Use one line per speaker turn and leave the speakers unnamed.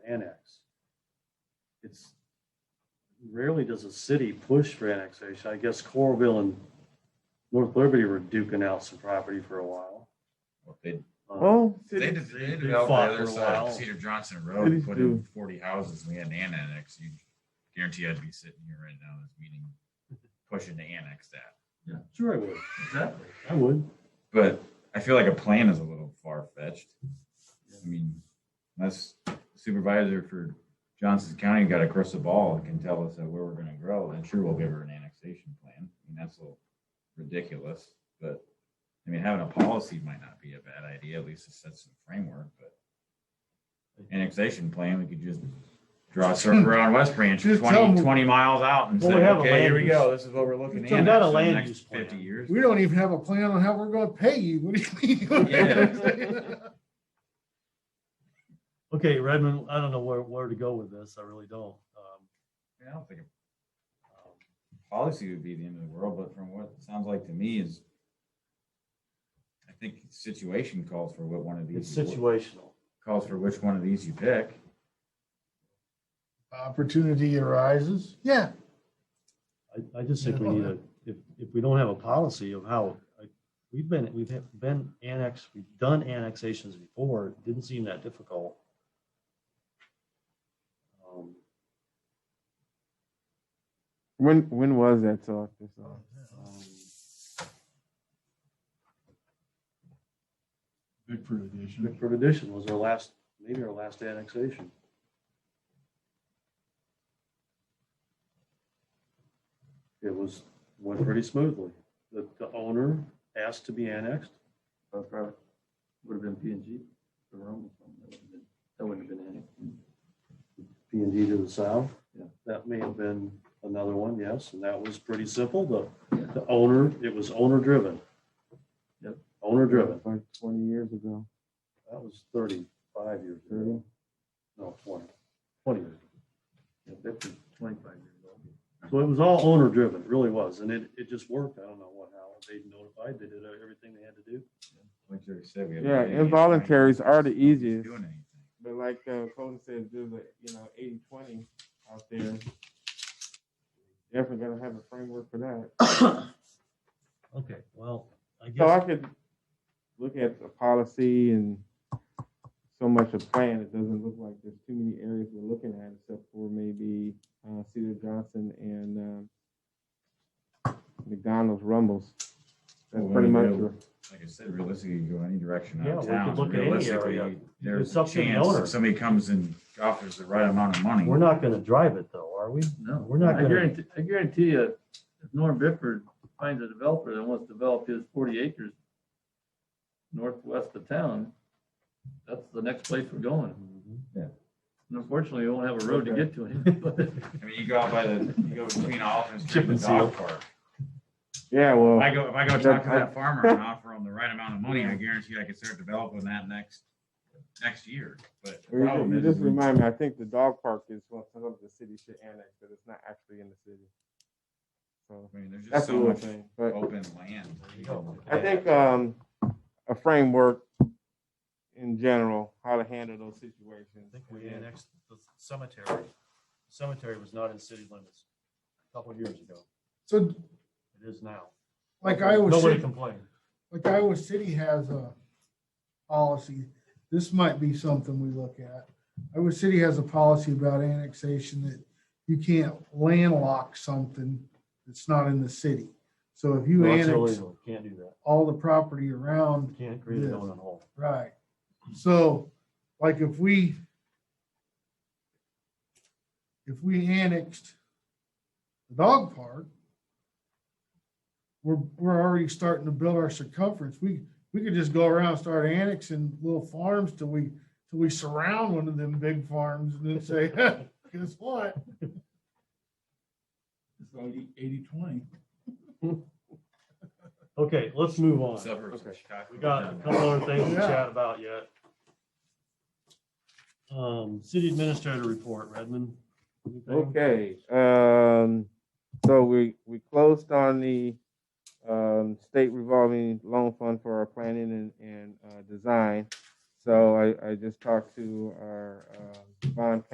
annex. It's rarely does a city push for annexation. I guess Coralville and North Liberty were duking out some property for a while.
Well, They,
Um,
Oh.
Well,
they
They
de-
did-
they
they
developed the
fought for
other
a
side of
while.
Cedar Johnson Road,
Cities
put in
do.
forty houses, we had an annex, you guarantee I'd be sitting here right now, this meeting, pushing to annex that.
Sure I would.
Exactly.
I would.
But I feel like a plan is a little far fetched. I mean, unless supervisor for Johnson County got across the ball and can tell us that where we're gonna grow, then sure, we'll give her an annexation plan. I mean, that's a little ridiculous, but, I mean, having a policy might not be a bad idea, at least it sets some framework, but annexation plan, we could just draw a circle around West Branch,
Just tell
20
them-
20 miles out and
Well,
say,
we have a
okay, here
land
we
use-
go, this is what we're looking at.
So we got a land use plan.
Fifty years.
we don't even have a plan on how we're gonna pay you. What do you mean?
Yeah.
Okay, Redmond, I don't know where, where to go with this. I really don't. Um,
I don't think a policy would be the end of the world, but from what it sounds like to me is, I think situation calls for what one of
It's
these, you-
situational.
calls for which one of these you pick.
Opportunity arises. Yeah.
I, I just think we need a, if, if we don't have a policy of how, like, we've been, we've had- been annexed, we've done annexations before, it didn't seem that difficult. Um,
When when was that talk? This uh,
um,
Big for addition.
Bickford Addition was our last, maybe our last annexation. It was, went pretty smoothly. The, the owner asked to be annexed.
That Uh, probably would have been P and G, the Rome, that wouldn't have been annexed.
P and D to the south.
Yeah.
That may have been another one, yes, and that was pretty simple, the, the owner, it was owner driven.
Yep.
Owner driven,
like twenty years ago.
that was thirty-five years ago,
Thirty?
no, twenty, twenty years. ago.
Yeah, that's twenty-five years old.
So it was all owner driven, it really was, and it, it just worked, I don't know what, how, they notified, they did everything they had to do.
Like Jerry said, we have.
Yeah,
any-
involuntaries are the easiest.
Doing anything.
But like uh, Colton says, there's a you know 80-20 out there. Definitely gotta have a framework for that.
Okay, well, I
So I could look at the policy and so much a plan. It doesn't look like there's too many areas we're looking at, except for maybe uh, Cedar Johnson and um, McDonald's Rumbles. That's
Well,
pretty
we
much.
know-
your-
Like I said, realistically, you go any direction
Yeah, we
out of
could
town.
look at any
Realistically,
area.
There's
It's
a
up to the
chance
owner.
if somebody comes and offers the right amount of money.
We're not gonna drive it though, are we?
No.
We're not
I
gonna-
guarantee, I guarantee you, if Norm Bifford finds a developer that wants to develop his forty acres northwest of town, that's the next place we're going.
Mm-hmm.
And unfortunately, we won't have a road to get to him, but
I mean, you go out by the, you go between Alton Street and the
Chip and
dog park.
Yeah, well.
If I go, if I go
Oh. That-
talk to
I-
that farmer and offer him the right amount of money, I guarantee I could start developing that next, next year. But the
You just-
problem
You
is,
just
we-
remind me, I think the dog park is what some of the city should annex, but it's not actually in the city. So
I mean, there's just
that's
so
another
much Oh,
thing, but
open land.
I think, um, a framework in general, how to handle those situations.
I think we
and
annexed the cemetery. Cemetery was not in city limits a couple of years ago.
So
It is now.
like Iowa
Nobody
City,
complained.
like Iowa City has a policy. This might be something we look at. Iowa City has a policy about annexation that you can't landlock something that's not in the city. So if you
No, it's
annex
illegal. Can't do that.
all the property around
Can't create a
Yes.
donut hole.
Right. So, like if we, if we annexed the dog park, we're, we're already starting to build our circumference. We, we could just go around, and start annexing little farms till we, till we surround one of them big farms and then say, guess what?
It's only eighty, twenty.
Okay, let's move on.
Suburbs of
Okay.
Chicago.
We got a couple other things to
Yeah.
chat about yet. Um, city administrator report, Redmond. anything?
Okay, um, so we, we closed on the, um, state revolving loan fund for our planning and, and, uh, design. So I, I just talked to our, um, bond